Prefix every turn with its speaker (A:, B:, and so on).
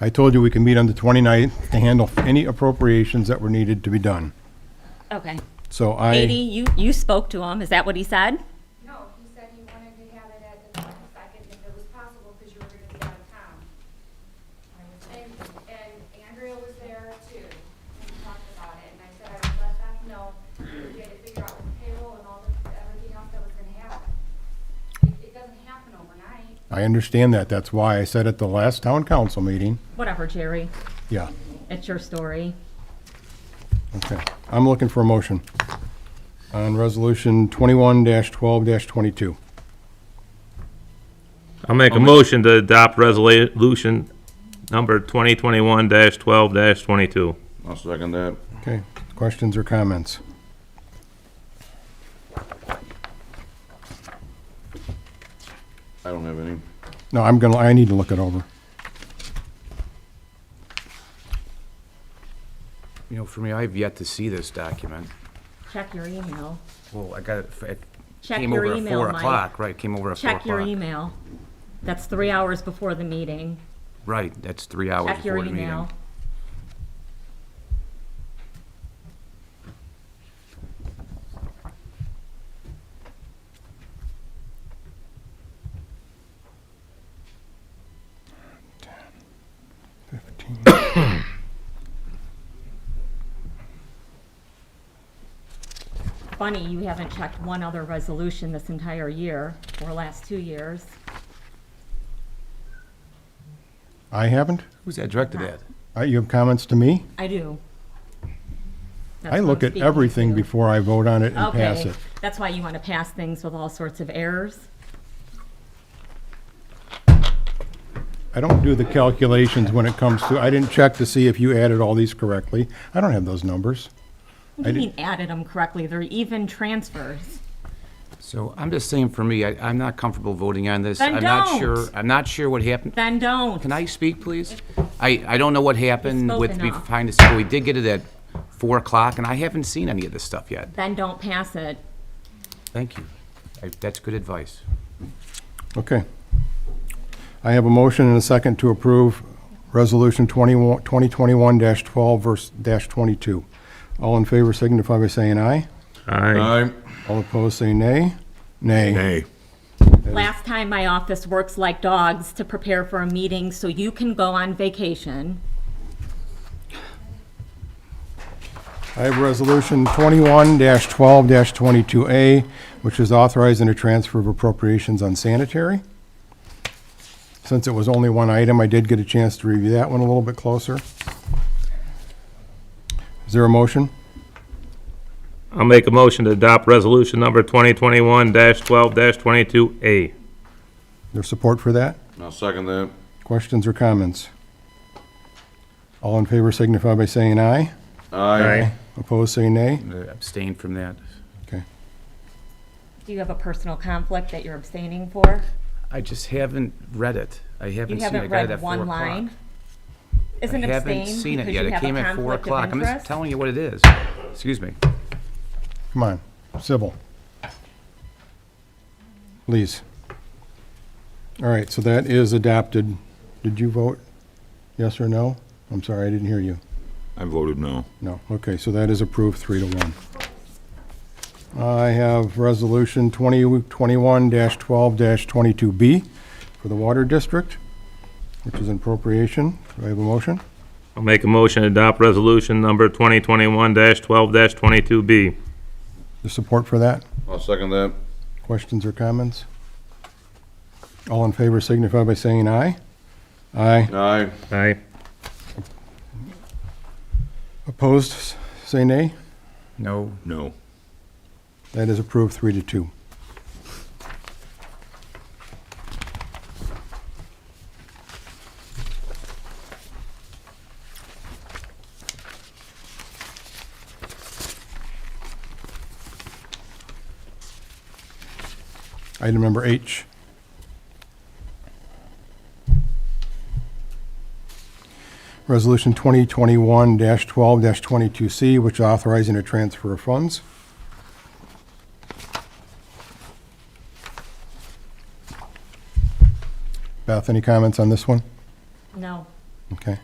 A: I told you we can meet on the 29th to handle any appropriations that were needed to be done.
B: Okay.
A: So I.
B: Katie, you, you spoke to him, is that what he said?
C: No, he said he wanted to have it at the twenty-second, if it was possible, because you were gonna be out of town. And, and Andrea was there too, and we talked about it, and I said I would let them know, we had to figure out with payroll and all the, everything else that was gonna happen. It, it doesn't happen overnight.
A: I understand that. That's why I said at the last town council meeting,
B: Whatever, Jerry,
A: yeah,
B: it's your story.
A: okay. I'm looking for a motion on resolution twenty-one twelve twenty-two.
D: I'll make a motion to adopt resolution number 2021-12-22.
E: I'll second that.
A: Okay, questions or comments?
E: I don't have any.
A: No, I'm gonna, I need to look it over.
F: You know, for me, I've yet to see this document.
B: Check your email.
F: Well, I got it, it
B: Check
F: came
B: your
F: over at
B: email,
F: four
B: Mike.
F: o'clock, right, came over at four
B: Check your
F: o'clock.
B: email. That's three hours before the meeting.
F: Right, that's three hours
B: Check your
F: before the
B: email.
F: meeting.
A: Fifteen.
B: Funny, you haven't checked one other resolution this entire year, or last two years.
A: I haven't?
F: Who's that directed at?
A: Uh, You have comments to me?
B: I do. That's
A: I
B: who
A: look
B: I'm
A: at
B: speaking
A: everything
B: to.
A: before I vote on it and pass
B: Okay,
A: it.
B: that's why you want to pass things with all sorts of errors.
A: I don't do the calculations when it comes to, I didn't check to see if you added all these correctly. I don't have those numbers.
B: You
A: didn't-
B: mean added them correctly, they're even transfers.
F: So I'm just saying, for me, I, I'm not comfortable voting on this.
B: Then
F: I'm not
B: don't.
F: sure, I'm not sure what happened.
B: Then don't.
F: Can I speak, please? I, I don't know what happened
B: spoke
F: with me
B: enough.
F: trying to, see- we did get it at four o'clock, and I haven't seen any of this stuff yet.
B: Then don't pass it.
F: Thank you. I- That's good advice.
A: Okay. I have a motion and a second to approve Resolution 21 2021-12 verse dash 22. All in favor signify by saying aye.
D: Aye.
A: All opposed, say nay. Nay.
E: Nay.
B: Last time, my office works like dogs to prepare for a meeting so you can go on vacation.
A: I have Resolution 21-12-22A, which is authorizing a transfer of appropriations on sanitary. Since it was only one item, I did get a chance to review that one a little bit closer. Is there a motion?
D: I'll make a motion to adopt resolution number 2021-12-22A.
A: There's support for that?
E: I'll second that.
A: Questions or comments? All in favor signify by saying aye.
E: Aye.
A: Opposed, say nay.
F: I'm gonna abstain from that.
A: Okay.
B: Do you have a personal conflict that you're abstaining for?
F: I just haven't read it. I
B: You
F: haven't seen it. I
B: haven't
F: got it at
B: read
F: four
B: one
F: o'clock.
B: line? Isn't
F: I haven't
B: abstain
F: seen it
B: because
F: yet.
B: you
F: It
B: have
F: came
B: a
F: at four
B: conflict
F: o'clock.
B: of
F: I'm just
B: interest?
F: telling you what it is. Excuse me.
A: Come on, civil. Please. All right, so that is adopted. Did you vote yes or no? I'm sorry, I didn't hear you.
E: I voted no.
A: No, okay, so that is approved, three to one. I have Resolution 2021-12-22B for the Water District, which is an appropriation. Do I have a motion?
D: I'll make a motion to adopt resolution number 2021-12-22B.
A: The support for that?
E: I'll second that.
A: Questions or comments? All in favor signify by saying aye. Aye.
E: Aye.
D: Aye.
A: Opposed, s- say nay.
F: No.
E: No.
A: That is approved, three to two. Item number H. Resolution 2021-12-22C, which authorizing a transfer of funds. Beth, any comments on this one?
B: No.
A: Okay.